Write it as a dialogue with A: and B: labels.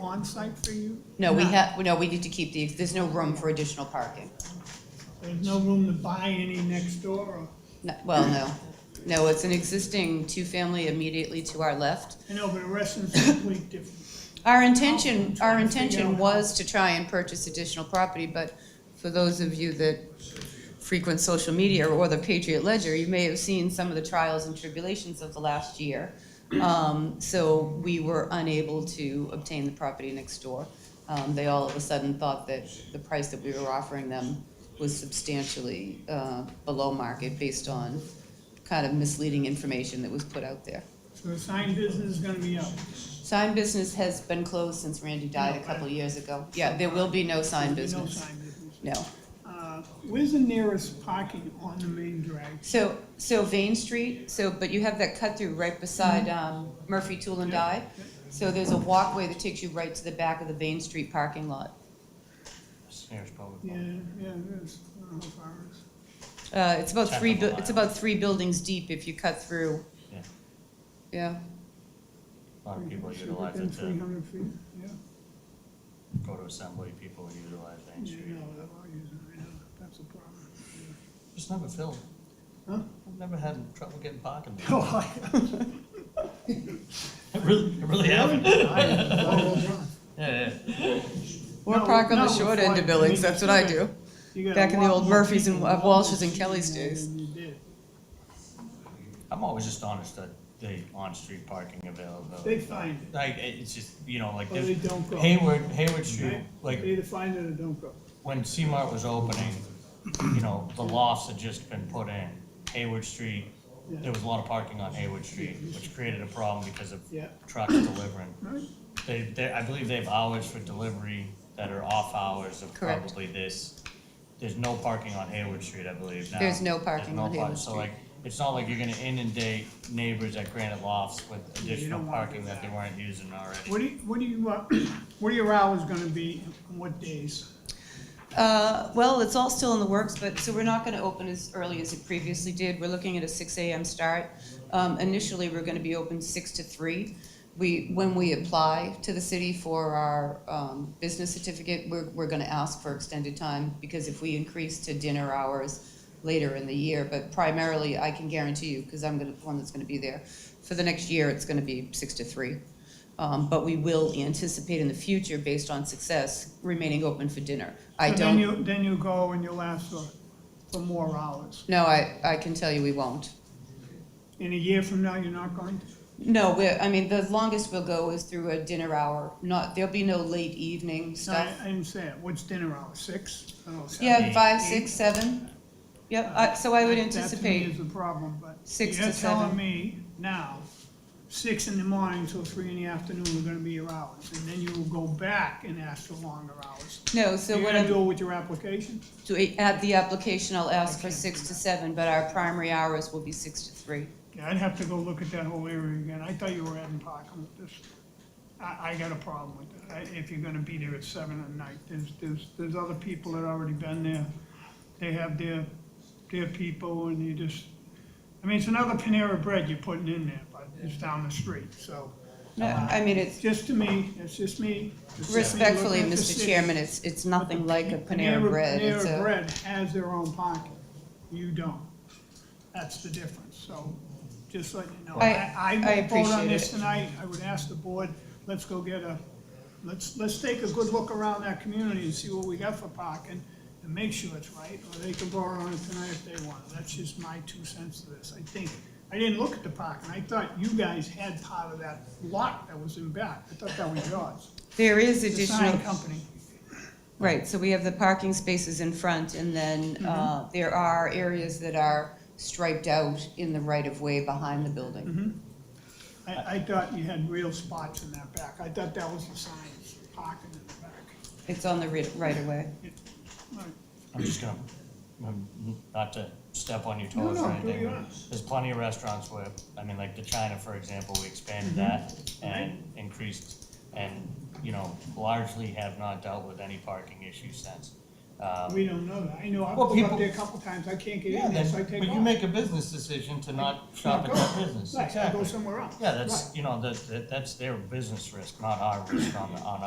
A: on site for you?
B: No, we
A: Not-
B: have, no, we need to keep the, there's no room for additional parking.
A: There's no room to buy any next door or?
B: No- Well, no. No, it's an existing two-family immediately to our left.
A: I know, but the rest is completely different.
B: Our
A: Trying to
B: intention, our
A: figure out
B: intention
A: how-
B: was to try and purchase additional property, but for those of you that frequent social media or the Patriot Ledger, you may have seen some of the trials and tribulations of the last year. Um, so we were unable to obtain the property next door. Um, they all of a sudden thought that the price that we were offering them was substantially, uh, below market based on kind of misleading information that was put out there.
A: So the sign business is gonna be up.
B: Sign business has been closed since Randy died a couple of years ago. Yeah, there will be no sign
A: There'll be No
B: business.
A: sign business.
B: No.
A: Uh, Where's the nearest parking on the main drive?
B: So, so Vane Street, so, but you have that cut through right beside um, Murphy Tool and Die. So there's a walkway that takes you right to the back of the Vane Street parking lot.
C: Snares probably.
A: Yeah, yeah, it is. I don't know how far it is.
B: Uh, It's about three, bu-
C: Half a mile.
B: it's about three buildings deep if you cut through.
C: Yeah.
B: Yeah,
C: A lot of people
A: Should
C: utilize
A: within
C: it
A: Three
C: to
A: hundred feet, yeah.
C: go to assembly, people utilize Main
A: Yeah,
C: Street.
A: no, they're all using it, yeah, that's a problem.
C: It's never filled.
A: Huh?
C: I've never had trouble getting parking. there.
A: Oh,
C: I really, I really haven't.
A: I-
C: Yeah, yeah.
B: or
A: No,
B: park on
A: no,
B: the
A: it's
B: short end
A: like-
B: of Billings, that's what I do.
A: You got a
B: Back in the
A: lot
B: old
A: more
B: Murphys and
A: people
B: Wa- Walsh's and
A: walking
B: Kelly's
A: now than
B: days.
A: you did.
C: I'm always astonished at the on-street parking availability.
A: They find it,
C: Like, it- it's just, you know, like,
A: or they
C: there's
A: don't go.
C: Hayward, Hayward Street,
A: Right?
C: like,
A: They either find it or don't go.
C: when C-Mart was opening, you know, the lofts had just been put in. Hayward Street, there was a lot of parking on Hayward Street, which created a problem because of
A: Yeah.
C: trucks delivering.
A: Right.
C: They, they, I believe they have hours for delivery that are off hours of
B: Correct.
C: probably this. There's no parking on Hayward Street, I believe, now.
B: There's no
C: There's
B: parking
C: no
B: on
C: par-
B: Hayward
C: So
B: Street.
C: like, it's not like you're gonna inundate neighbors at Granite Lofts with
A: you
C: additional
A: don't wanna do
C: parking that they
A: that.
C: weren't using already.
A: What do you, what do you, uh, what are your hours gonna be, and what days?
B: Uh, well, it's all still in the works, but, so we're not gonna open as early as it previously did. We're looking at a six AM start. Um, initially, we're gonna be open six to three. We, when we apply to the city for our, um, business certificate, we're, we're gonna ask for extended time, because if we increase to dinner hours later in the year, but primarily, I can guarantee you, because I'm gonna, the one that's gonna be there, for the next year, it's gonna be six to three. Um, but we will anticipate in the future, based on success, remaining open for dinner. I
A: So
B: don't.
A: Then you, then you go and you'll ask for, for more hours.
B: No, I, I can tell you we won't.
A: In a year from now, you're not going to?
B: No, we're, I mean, the longest we'll go is through a dinner hour, not, there'll be no late evening
A: No, I,
B: stuff.
A: I didn't say it, what's dinner hour, six? I don't know, seven,
B: Yeah, five,
A: eight?
B: six, seven. Yep, I- so I would
A: Uh, That to me
B: anticipate,
A: is the problem, but.
B: six to
A: You're telling
B: seven.
A: me now, six in the morning till three in the afternoon are gonna be your hours, and then you will go back and ask for longer hours.
B: no, so
A: You're
B: what
A: gonna
B: I'm,
A: do it with your application?
B: to add the application, I'll ask for
A: can't
B: six
A: do
B: to seven, but our primary hours will be six to three.
A: Yeah, I'd have to go look at that whole area again, I thought you were adding parking with this. I, I got a problem with that, I- if you're gonna be there at seven at night, there's, there's, there's other people that already been there. They have their, their people, and you just, I mean, it's another Panera Bread you're putting in there, but it's down the street, so.
B: No, I mean, it's,
A: Just to me, it's just me. It's just me
B: respectfully,
A: looking at the
B: Mr.
A: city.
B: Chairman, it's, it's nothing like a Panera Bread. It's
A: Panera
B: a,
A: Bread has their own parking, you don't. That's the difference, so just letting you know.
B: I- I
A: I won't vote on
B: appreciate
A: this
B: it.
A: tonight, I would ask the board, let's go get a, let's, let's take a good look around that community and see what we got for parking and make sure it's right, or they can vote on it tonight if they want. That's just my two cents to this. I think, I didn't look at the parking, I thought you guys had part of that lot that was in back. I thought that was yours.
B: there is
A: The sign
B: additional,
A: company.
B: Right, so we have the parking spaces in front, and then uh, there are areas that are striped out in the right-of-way behind the building.
A: I, I thought you had real spots in that back. I thought that was the sign, parking in the back.
B: It's on the ri- right-of-way.
A: Right.
C: I'm just gonna, I'm- not to step on your
A: No,
C: toes
A: no,
C: or
A: do
C: anything,
A: your
C: but
A: honors.
C: there's plenty of restaurants where, I mean, like the China, for example, we expanded
A: Mm-hmm.
C: that and increased, and, you know, largely have not dealt with any parking issues since. Um,
A: We don't know that. I know, I've
C: Well,
A: pulled up
C: people-
A: there a couple times. I can't get
C: Yeah,
A: in there,
C: then,
A: so I
C: but
A: take off.
C: you make a business decision to not shop at
A: go.
C: that business,
A: Right, I go
C: exactly.
A: somewhere else.
C: Yeah,
A: Right.
C: that's, you know, that, that- that's their business risk, not our risk on, on